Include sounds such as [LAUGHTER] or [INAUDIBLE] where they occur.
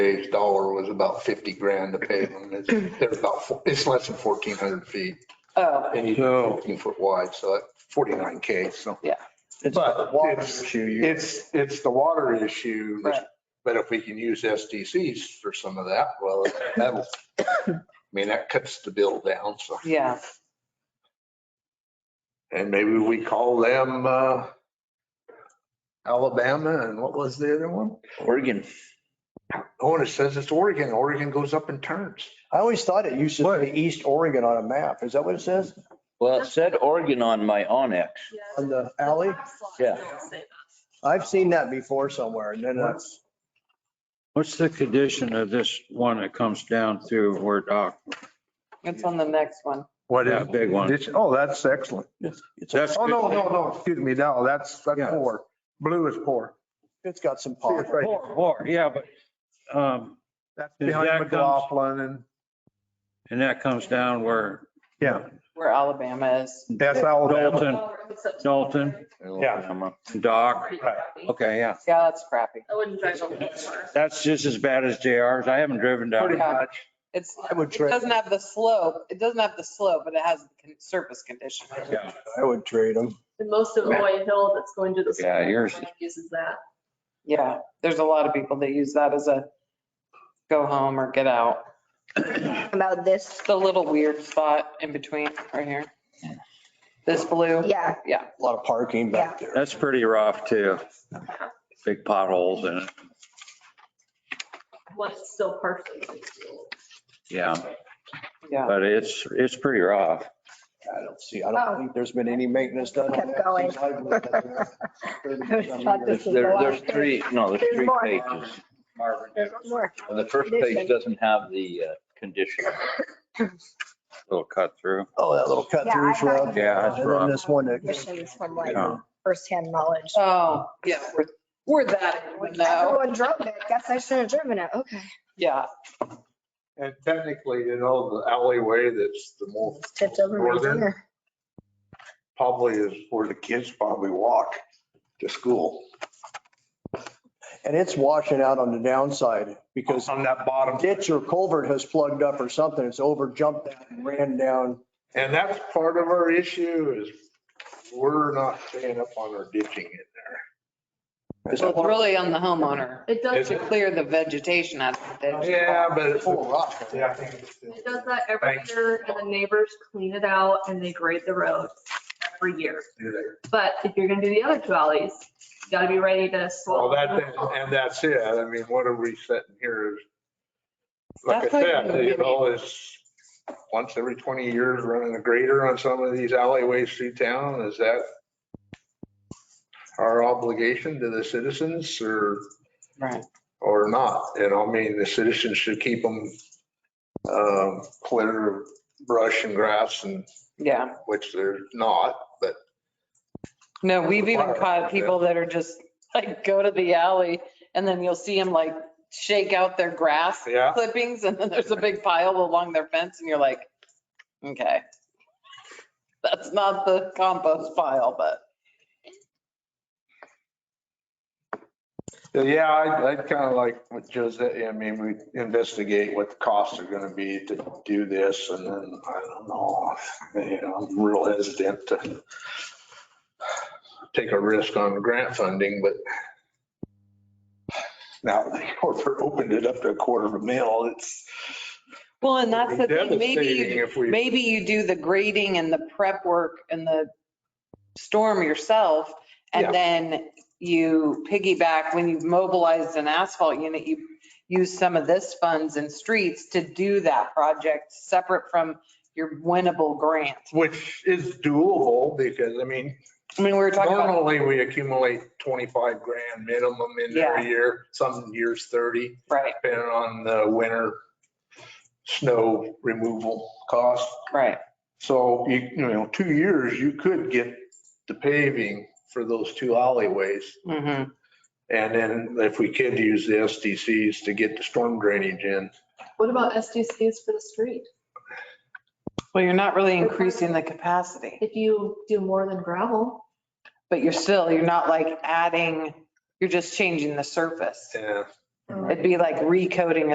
today's dollar was about 50 grand to pave them. It's- They're about, four- it's less than 1,400 feet Oh, and So- you're 15 foot wide, so that 49K, so. It's But a water it's- issue. You- It's, it's the water issue, Right. but if we can use SDCs for some of that, well, that'll, I mean, that cuts the bill down, so. yeah, And maybe we call them uh, Alabama and what was the other one? Oregon. Oh, and it says it's Oregon. Oregon goes up in turns. I always thought it used to What? say East Oregon on a map. Is that what it says Well, it said Oregon on my Onyx. on the alley? Yeah. I've seen that before somewhere and then uh, that's, What's the condition of this one that comes down through where Doc, it's on the next one. what a big one? It's- Oh, that's excellent. it's, That's, Oh, no, no, no, excuse me, no, that's, that's Yeah. poor. Blue is poor. it's got some See, it's pockets. right here. Or- or, yeah, but, um, That's Is behind that comes- McLaughlin and, and that comes down where yeah, Where Alabama is. that's Alabama. Dalton, Dalton, Alabama. Doc, okay, yeah. Yeah, that's crappy. I wouldn't drive over there. That's just as bad as JR's. I haven't driven down. Pretty it. much. It's, I would it trade, doesn't have the slope, it doesn't have the slope, but it has the con- surface condition. Yeah. I would trade them. And most of Roy Hill that's going to the. Yeah, school yours- Uses that. Yeah, there's a lot of people that use that as a go home or get out. About this, It's the little weird spot in between right here. This blue. yeah, A lot of parking back there. That's pretty rough too. Big potholes in it. Well, it's still partially. Yeah, Yeah, but it's, it's pretty rough. I don't see, I don't think there's been any maintenance done. on Oh. Kept that [LAUGHS] going. since I've lived there. There's, there- there's three, no, there's three pages. there's more. And the first page doesn't have the uh, condition. Little cut through. Oh, that little cut Yeah, I through's thought- rough. Yeah, that's And then rough. this one that, Conditions from like Yeah. firsthand knowledge. oh, yeah, we're, we're that, in the know. Everyone drove it. Guess I shouldn't have driven it. Okay. yeah, And technically, you know, the alleyway that's the more It's tipped over my Northern? dinner. probably is where the kids probably walk to school. and it's washing out on the downside because On that bottom. ditch or culvert has plugged up or something. It's over jumped that and ran down. And that's part of our issue is we're not staying up on our ditching in It's So it's really on the homeowner It does, to it clear the vegetation out of the ditch. there. Yeah, but it's. full of rock. Yeah, I think it's- does that every Thanks. year and the neighbors clean it out and they grade the road every year. But if you're gonna do the other two alleys, you gotta be ready to Well, swallow. that, and that's it. I mean, what are we setting here is, like I That's like- said, you know, it's once every 20 years running a grader on some of these alleyways through town. Is that our obligation to the citizens or, Right, or not? You know, I mean, the citizens should keep them um, clear of brush and grass and yeah. which they're not, but No, we've even Water. caught people that are just like, go to the alley and then you'll see them like shake out their grass yeah. clippings and then there's a big pile along their fence and you're like, okay. That's not the compost pile, but Yeah, I'd, I'd kind of like with Josette, I mean, we investigate what the costs are going to be to do this and then, I don't know. you know, I'm real hesitant to take a risk on grant funding, but now the corporate opened it up to a quarter of a mil, it's. Well, and that's the thing, maybe devastating you, if we- maybe you do the grading and the prep work and the storm yourself. Yeah. And then you piggyback when you've mobilized an asphalt unit, you use some of this funds and streets to do that project separate from your winnable grant. Which is doable because, I mean, I mean, we were talking about, normally we accumulate 25 grand minimum in Yeah. every year, some years 30. right, depending on the winter snow removal cost. right, So you, you know, two years, you could get the paving for those two alleyways. hmm And then if we could use the SDCs to get the storm drainage in. What about SDCs for the street? Well, you're not really increasing the capacity, If you do more than gravel, but you're still, you're not like adding, you're just changing the surface. Yeah. It'd be like recoding